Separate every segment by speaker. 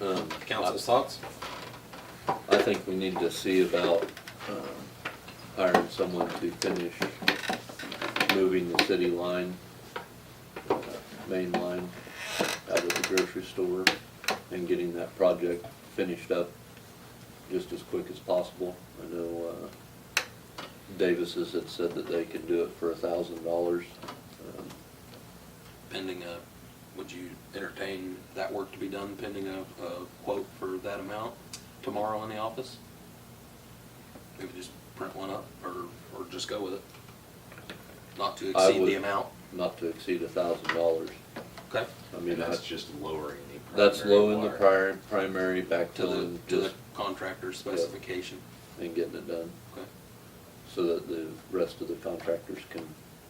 Speaker 1: Um,
Speaker 2: Council's thoughts?
Speaker 1: I think we need to see about um, hiring someone to finish moving the city line, uh, main line, out of the grocery store and getting that project finished up just as quick as possible. I know uh, Davis's had said that they can do it for a thousand dollars.
Speaker 2: Pending a, would you entertain that work to be done pending a, a quote for that amount tomorrow in the office? Maybe just print one up or, or just go with it? Not to
Speaker 1: I
Speaker 2: exceed
Speaker 1: would-
Speaker 2: the amount,
Speaker 1: Not to exceed a thousand dollars.
Speaker 2: okay?
Speaker 1: I mean,
Speaker 3: And that's
Speaker 1: that's,
Speaker 3: just lowering the.
Speaker 1: that's
Speaker 3: primary
Speaker 1: low in the
Speaker 3: wire.
Speaker 1: pri- primary
Speaker 2: To the,
Speaker 1: backfilling,
Speaker 2: to the
Speaker 1: just
Speaker 2: contractor's specification,
Speaker 1: and getting it done.
Speaker 2: okay?
Speaker 1: so that the rest of the contractors can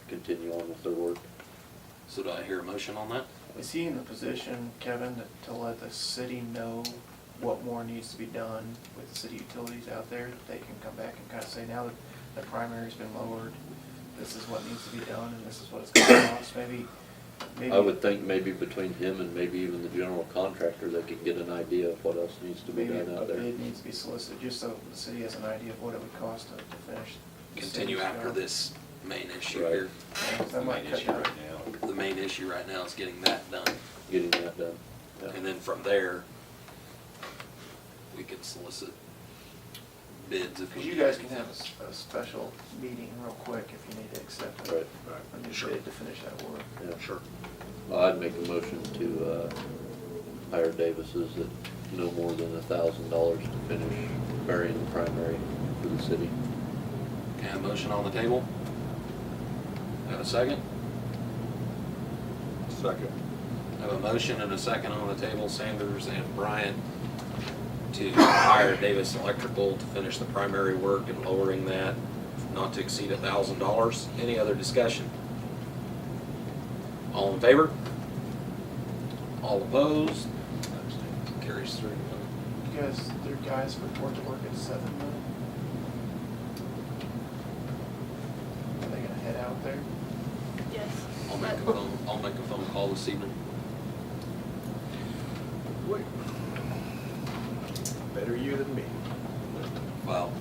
Speaker 1: continue on with their work.
Speaker 2: So do I hear a motion on that?
Speaker 4: Is he in the position, Kevin, to, to let the city know what more needs to be done with city utilities out there? They can come back and kind of say, now that the primary's been lowered, this is what needs to be done, and this is what it's gonna cost, maybe, maybe.
Speaker 1: I would think maybe between him and maybe even the general contractor, they could get an idea of what else needs to be
Speaker 4: Maybe
Speaker 1: done
Speaker 4: a
Speaker 1: out there.
Speaker 4: bid needs to be solicited, just so the city has an idea of what it would cost to, to finish. the
Speaker 2: Continue
Speaker 4: city's
Speaker 2: after
Speaker 4: job.
Speaker 2: this main issue
Speaker 1: Right.
Speaker 2: here.
Speaker 4: Yeah,
Speaker 3: The
Speaker 4: That might
Speaker 3: main
Speaker 4: cut
Speaker 3: issue
Speaker 4: down.
Speaker 3: right now,
Speaker 2: The main issue right now is getting that done.
Speaker 1: Getting that done. Yeah.
Speaker 2: And then from there, we can solicit bids if we.
Speaker 4: Cause you guys can have a s- a, special meeting real quick if you need to accept
Speaker 1: Right.
Speaker 4: it. A new
Speaker 2: Sure.
Speaker 4: bid to finish that work.
Speaker 1: Yeah.
Speaker 2: Sure.
Speaker 1: Well, I'd make a motion to, uh, hire Davis's at no more than a thousand dollars to finish burying the primary for the city.
Speaker 2: Okay, a motion on the table? Have a second?
Speaker 5: Second.
Speaker 2: Have a motion and a second on the table, Sanders and Bryant, to hire Davis Electrical to finish the primary work and lowering that not to exceed a thousand dollars. Any other discussion? All in favor? All opposed? Carries three to one.
Speaker 4: You guys, their guys report to work at seven now? Are they gonna head out there?
Speaker 6: Yes.
Speaker 2: I'll make a phone, I'll make a phone call this evening.
Speaker 5: Better you than me.
Speaker 2: Well,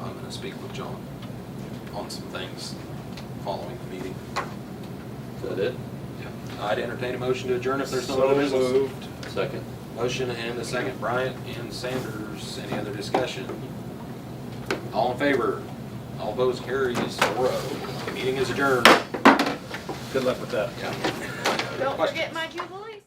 Speaker 2: I'm gonna speak with John on some things following the meeting.
Speaker 1: Is that it?
Speaker 2: I'd entertain a motion to adjourn if there's no other business.
Speaker 5: moved.
Speaker 1: Second?
Speaker 2: Motion and a second, Bryant and Sanders. Any other discussion? All in favor? All opposed, carries four oh. Meeting is adjourned.
Speaker 5: Good luck with that.
Speaker 2: Yeah.
Speaker 6: Don't
Speaker 2: Question.
Speaker 6: forget my Jubilee.